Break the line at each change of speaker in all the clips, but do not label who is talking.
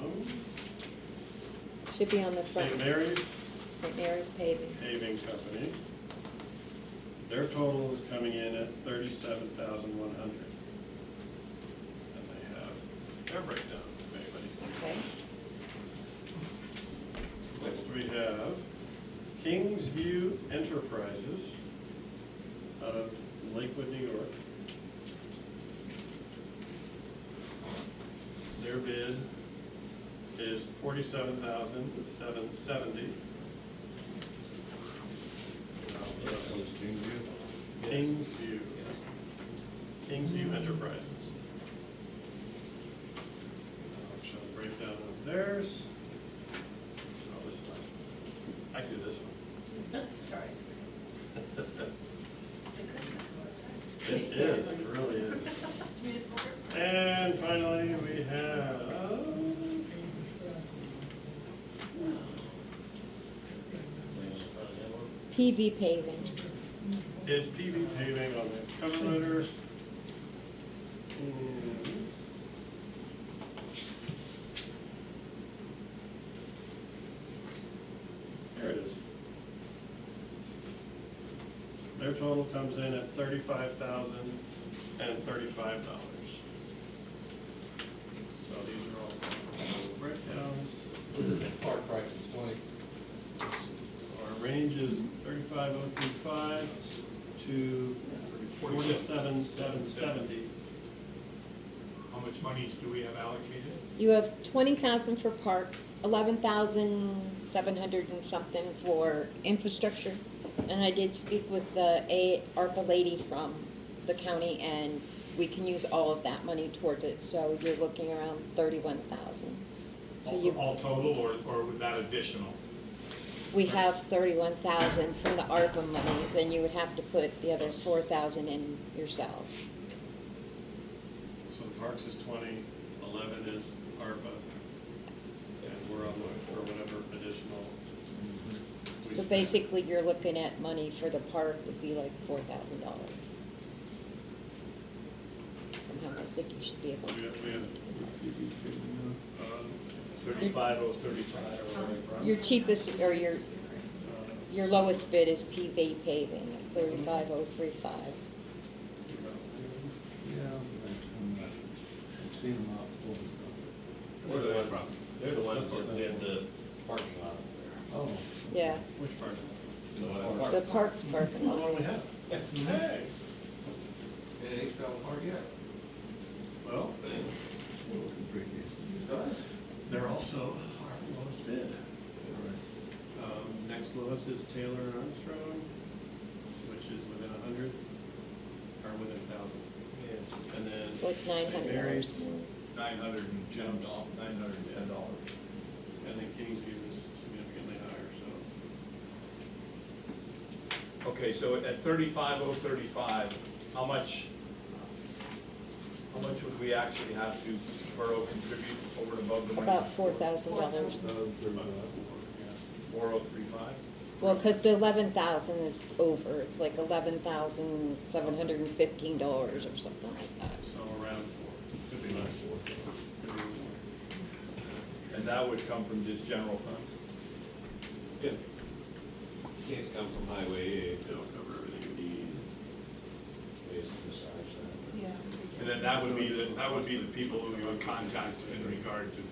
Mm-hmm.
Should be on the front.
St. Mary's
St. Mary's paving.
Paving Company. Their total is coming in at thirty-seven thousand one hundred. And they have their breakdown, if anybody's
Okay.
curious. Next we have Kingsview Enterprises out of Lakewood, New York. Their bid is forty-seven thousand seven seventy. Kingsview. Kingsview Enterprises. I'll show the breakdown of theirs. Oh, this one. I can do this one.
Sorry.
It is, it really is.
It's municipal Christmas.
And finally, we have. Where is this?
PV paving.
It's PV paving on the cover letter. And There it is. Their total comes in at thirty-five thousand and thirty-five dollars. So these are all breakdowns.
Park price is twenty.
Our range is thirty-five oh three five to forty-seven seven seventy.
How much money do we have allocated?
You have twenty thousand for parks, eleven thousand seven hundred and something for infrastructure. And I did speak with the A, ARPA lady from the county and we can use all of that money towards it, so you're looking around thirty-one thousand. So
All-
you,
All total or, or with that additional?
we have thirty-one thousand from the ARPA money, then you would have to put the other four thousand in yourself.
So the parks is twenty, eleven is ARPA. And we're on the look for whatever additional. we
So
spend.
basically, you're looking at money for the park would be like four thousand dollars. Somehow I think you should be able
We
to.
have, we have. um,
Thirty-five oh thirty-five or whatever.
Your cheapest, or your,
uh,
your lowest bid is PV paving, thirty-five oh three five.
Yeah, I've seen them out.
They're the ones, they're the ones that did the parking lot
Oh.
Yeah,
Which part?
up
the
there.
parks parking
How
lot.
long we have? Hey,
It ain't fell apart yet.
well,
It does.
they're also our lowest bid. Um, next lowest is Taylor and Armstrong, which is within a hundred, or within a thousand. And then.
It's like nine
St.
hundred
Mary's,
dollars.
Nine hundred and ten
Jumps.
dollars, nine hundred and ten dollars.
and then Kingsview is significantly higher, so.
Okay, so at thirty-five oh thirty-five, how much, how much would we actually have to borough contribute over and above the money?
About four thousand dollars.
Four oh three five?
Well, because the eleven thousand is over, it's like eleven thousand seven hundred and fifteen dollars or something like that.
So around four, could be less. Could be more.
And that would come from just general fund?
Yeah. Can't come from highway A,
It'll cover everything you need.
it's besides that.
Yeah.
And then that would be, the that would be the people who we would contact in regard to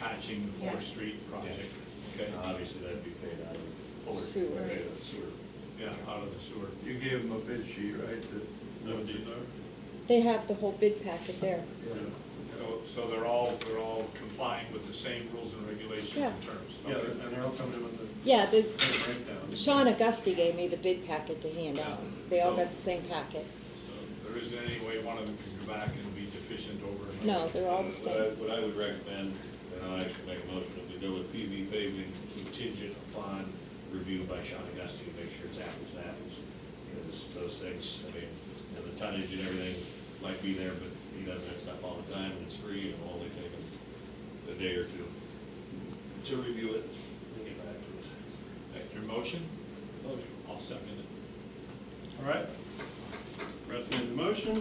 patching the Fourth
Yeah.
Street project. Okay,
And obviously that'd be paid out of Fuller.
Sewer.
Paid out of sewer.
yeah, out of the sewer.
You gave them a bid sheet, right?
Is that what these are?
They have the whole bid packet there.
So, so they're all, they're all complying with the same rules and regulations
Yeah.
and terms?
Yeah,
Okay.
and they're all coming in with the
Yeah, the,
same breakdown.
Sean Auguste gave me the bid packet to hand out. They all got the same packet.
So There isn't any way one of them can go back and be deficient over another?
No, they're all the
What I,
same.
what I would recommend, and I'll actually make a motion, that we go with PV paving contingent upon review by Sean Auguste to make sure it's apples to apples. Because those things, I mean, you know, the tonnage and everything might be there, but he does that stuff all the time and it's free and it'll only take him a day or two to review it and get back to us.
That's your motion? Motion. I'll second it.
All right. Brett's made the motion.